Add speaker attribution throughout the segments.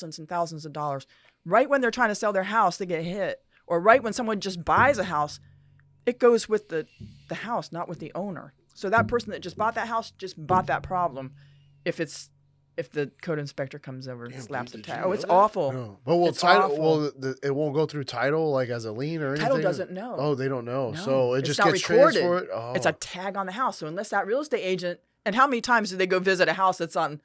Speaker 1: thousands and thousands of dollars. Right when they're trying to sell their house, they get hit, or right when someone just buys a house, it goes with the the house, not with the owner. So that person that just bought that house just bought that problem. If it's if the code inspector comes over and
Speaker 2: Damn,
Speaker 1: slaps a
Speaker 2: dude, did
Speaker 1: tag,
Speaker 2: you
Speaker 1: oh,
Speaker 2: know
Speaker 1: it's
Speaker 2: that?
Speaker 1: awful.
Speaker 2: No. But will
Speaker 1: It's
Speaker 2: title?
Speaker 1: awful.
Speaker 2: Will the, it won't go through title like as a lien or anything?
Speaker 1: Title doesn't know.
Speaker 2: Oh, they don't know.
Speaker 1: No,
Speaker 2: So it
Speaker 1: it's
Speaker 2: just
Speaker 1: not
Speaker 2: gets
Speaker 1: recorded.
Speaker 2: transferred. Oh.
Speaker 1: It's a tag on the house. So unless that real estate agent, and how many times do they go visit a house that's on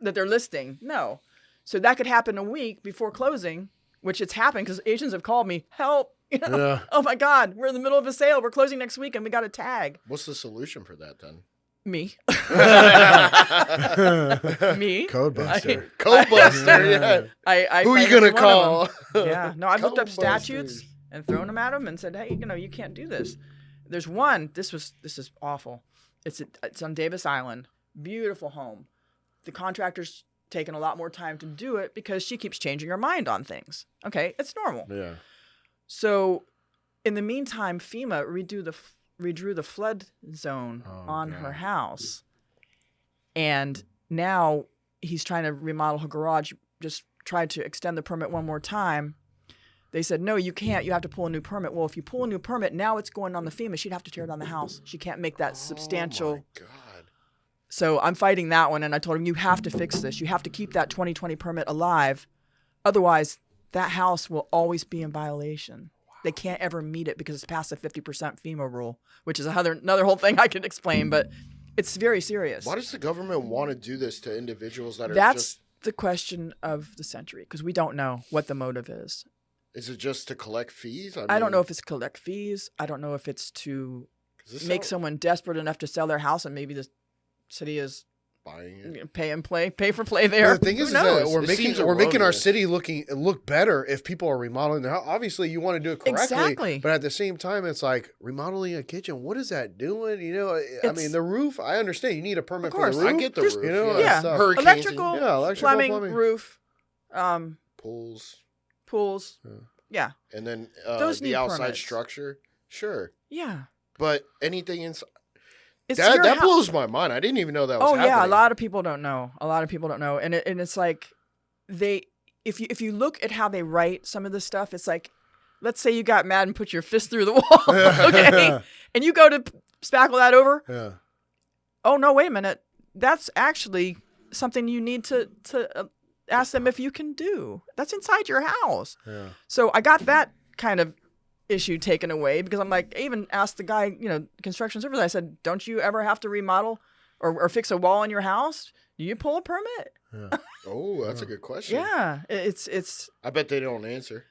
Speaker 1: that they're listing? No. So that could happen a week before closing, which it's happened because agents have called me, help. You know?
Speaker 2: yeah.
Speaker 1: Oh my God, we're in the middle of a sale. We're closing next week and we got a tag.
Speaker 3: What's the solution for that then?
Speaker 1: Me.
Speaker 2: Codebuster.
Speaker 1: me.
Speaker 3: Codebuster. yeah.
Speaker 1: I, I
Speaker 3: Who are you
Speaker 1: find every
Speaker 3: gonna
Speaker 1: one of them.
Speaker 3: call?
Speaker 1: yeah. No, I've looked up
Speaker 3: Codebusters.
Speaker 1: statutes and thrown them at them and said, hey, you know, you can't do this. There's one. This was this is awful. It's it's on Davis Island. Beautiful home. The contractor's taking a lot more time to do it because she keeps changing her mind on things. Okay, it's normal.
Speaker 2: Yeah.
Speaker 1: So, in the meantime, FEMA redo the f- redrew the flood zone
Speaker 2: Oh,
Speaker 1: on
Speaker 2: God.
Speaker 1: her house, and now he's trying to remodel her garage. Just tried to extend the permit one more time. They said no, you can't. You have to pull a new permit. Well, if you pull a new permit, now it's going on the FEMA. She'd have to tear down the house. She can't make that substantial.
Speaker 3: Oh my God.
Speaker 1: So I'm fighting that one, and I told him, you have to fix this. You have to keep that 2020 permit alive. Otherwise, that house will always be in violation. They can't ever meet it because it's past the 50% FEMA rule, which is another, another whole thing I can explain, but it's very serious.
Speaker 3: Why does the government want to do this to individuals that are
Speaker 1: That's
Speaker 3: just
Speaker 1: the question of the century because we don't know what the motive is.
Speaker 3: is it just to collect fees?
Speaker 1: I, don't
Speaker 3: mean,
Speaker 1: know if it's collect fees. I don't know if it's to
Speaker 3: 'cause this
Speaker 1: make
Speaker 3: sound-
Speaker 1: someone desperate enough to sell their house and maybe the city is
Speaker 3: buying it.
Speaker 1: you know, pay and play, pay for play there.
Speaker 2: The thing
Speaker 1: Who
Speaker 2: is, is
Speaker 1: knows?
Speaker 2: that we're
Speaker 3: It
Speaker 2: making
Speaker 3: seems
Speaker 2: we're making our
Speaker 3: erroneous.
Speaker 2: city looking look better if people are remodeling their house. Obviously, you want to do it correctly,
Speaker 1: Exactly.
Speaker 2: but at the same time, it's like remodeling a kitchen. What is that doing? You know, I- I
Speaker 1: It's-
Speaker 2: mean, the roof. I understand you need a permit
Speaker 1: Of
Speaker 2: for the
Speaker 1: course.
Speaker 2: roof.
Speaker 3: I get the
Speaker 1: Just-
Speaker 3: roof.
Speaker 2: you know,
Speaker 1: yeah.
Speaker 3: it's, uh,
Speaker 2: Yeah.
Speaker 3: hurrical
Speaker 1: Electrical,
Speaker 2: yeah, electrical
Speaker 1: plumbing,
Speaker 2: plumbing,
Speaker 1: roof, um,
Speaker 3: pools,
Speaker 1: pools.
Speaker 2: Yeah.
Speaker 1: Yeah.
Speaker 3: and then uh,
Speaker 1: Those need
Speaker 3: the outside
Speaker 1: permits.
Speaker 3: structure. Sure,
Speaker 1: Yeah.
Speaker 3: but anything inside
Speaker 1: It's
Speaker 3: that,
Speaker 1: your
Speaker 3: that
Speaker 1: hou-
Speaker 3: blows my mind. I didn't even know that was
Speaker 1: Oh
Speaker 3: happening.
Speaker 1: yeah, a lot of people don't know. A lot of people don't know, and it, and it's like they if you if you look at how they write some of this stuff, it's like let's say you got mad and put your fist through the wall, okay, and you go to p- spackle that over.
Speaker 2: Yeah.
Speaker 1: Oh no, wait a minute, that's actually something you need to to uh, ask them if you can do. That's inside your house.
Speaker 2: Yeah.
Speaker 1: So I got that kind of issue taken away because I'm like, I even asked the guy, you know, construction service, I said, don't you ever have to remodel or, or fix a wall in your house? Do you pull a permit?
Speaker 2: Yeah.
Speaker 3: Oh, that's a
Speaker 2: Yeah.
Speaker 3: good question.
Speaker 1: Yeah. it- It's, it's,
Speaker 3: I bet they don't answer.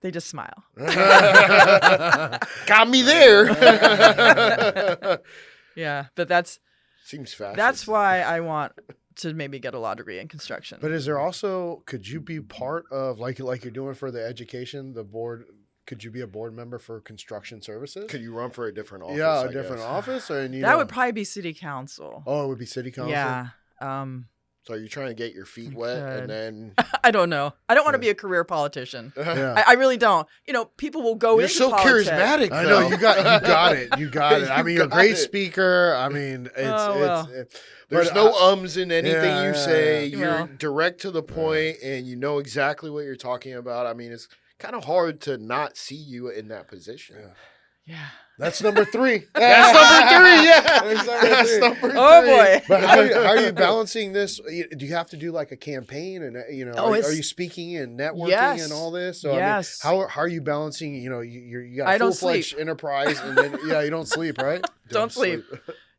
Speaker 1: they just smile.
Speaker 3: Got me there.
Speaker 1: Yeah. But that's,
Speaker 3: Seems fast.
Speaker 1: that's why I want to maybe get a law degree in construction.
Speaker 2: But is there also could you be part of like like you're doing for the education the board? Could you be a board member for construction services?
Speaker 3: Could you run for a different office?
Speaker 2: yeah,
Speaker 3: I
Speaker 2: a different
Speaker 3: guess?
Speaker 2: office, or and you
Speaker 1: that
Speaker 2: know-
Speaker 1: would probably be city council.
Speaker 2: oh, it would be city council.
Speaker 1: yeah. Um,
Speaker 3: So you're trying to get your feet
Speaker 1: You
Speaker 3: wet,
Speaker 1: could.
Speaker 3: and then
Speaker 1: I don't know. I don't want to be
Speaker 2: Yeah.
Speaker 1: a career politician.
Speaker 2: Yeah.
Speaker 1: I, I really don't. You know, people will go
Speaker 3: you're
Speaker 1: into
Speaker 3: so
Speaker 1: politics.
Speaker 3: charismatic.
Speaker 2: I know
Speaker 3: though.
Speaker 2: you got you got it. You got it. I
Speaker 3: You
Speaker 2: mean, you're a
Speaker 3: got
Speaker 2: great
Speaker 3: it.
Speaker 2: speaker. I mean, it's
Speaker 1: Oh, well.
Speaker 2: it's it,
Speaker 3: There's
Speaker 2: but
Speaker 3: no
Speaker 2: I-
Speaker 3: ums in anything
Speaker 2: Yeah,
Speaker 3: you
Speaker 2: yeah,
Speaker 3: say.
Speaker 1: yeah.
Speaker 3: You're
Speaker 1: Well-
Speaker 3: direct to the point, and you know exactly what you're talking about. I mean, it's kind of hard to not see you in that position.
Speaker 2: Yeah.
Speaker 1: Yeah.
Speaker 2: that's number three.
Speaker 3: That's number three. Yeah,
Speaker 2: That's number
Speaker 3: That's
Speaker 2: three.
Speaker 3: number
Speaker 1: Oh
Speaker 3: three.
Speaker 1: boy.
Speaker 2: But how, how are you balancing this? You- Do you have to do like a campaign and uh, you know?
Speaker 1: Oh,
Speaker 2: are, you-
Speaker 1: it's-
Speaker 2: are you speaking and networking
Speaker 1: Yes.
Speaker 2: and all this? So
Speaker 1: Yes.
Speaker 2: I mean, how, how are you balancing? You know, you you're, you got
Speaker 1: I
Speaker 2: a
Speaker 1: don't
Speaker 2: full fledged enterprise, and then yeah, you don't sleep, right?
Speaker 1: Don't sleep.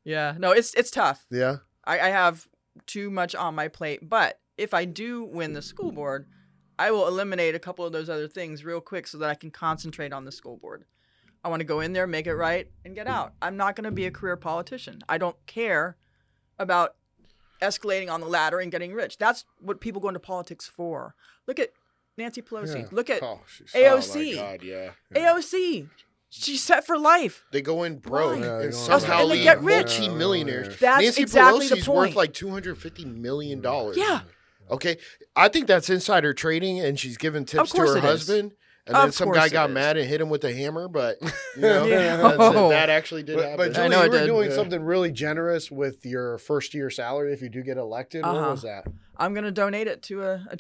Speaker 1: Yeah. No, it's it's tough.
Speaker 2: Yeah,
Speaker 1: I, I have too much on my plate. But if I do win the school board, I will eliminate a couple of those other things real quick so that I can concentrate on the school board. I want to go in there, make it right, and get out. I'm not going to be a career politician. I don't care about escalating on the ladder and getting rich. That's what people go into politics for. Look at Nancy Pelosi.
Speaker 2: Yeah.
Speaker 1: Look at
Speaker 2: Oh, she's-
Speaker 1: AOC.
Speaker 3: Oh my God, yeah.
Speaker 1: AOC. She's set for life.
Speaker 3: They go in broke
Speaker 1: Why?
Speaker 2: Yeah, they
Speaker 3: and
Speaker 2: go in
Speaker 3: somehow
Speaker 1: broke. And they
Speaker 3: leave
Speaker 1: get rich.
Speaker 3: multi-millionaires.
Speaker 1: That's
Speaker 3: Nancy
Speaker 1: exactly the
Speaker 3: Pelosi's
Speaker 1: point.
Speaker 3: worth like two hundred fifty million dollars.
Speaker 1: Yeah.
Speaker 3: Okay, I think that's insider trading, and she's giving tips to
Speaker 1: course it
Speaker 3: her
Speaker 1: is.
Speaker 3: husband. And
Speaker 1: Of
Speaker 3: then some guy
Speaker 1: course it
Speaker 3: got
Speaker 1: is.
Speaker 3: mad and hit him with a hammer, but you know
Speaker 1: Yeah.
Speaker 3: that's it.
Speaker 1: Oh.
Speaker 3: that actually did
Speaker 2: But, but
Speaker 3: happen.
Speaker 1: I know
Speaker 2: Julie, you
Speaker 1: it
Speaker 2: were
Speaker 1: did.
Speaker 2: doing
Speaker 3: Yeah.
Speaker 2: something really generous with your first year salary if you do get elected.
Speaker 1: Uh-huh.
Speaker 2: What was that?
Speaker 1: I'm gonna donate it to a, a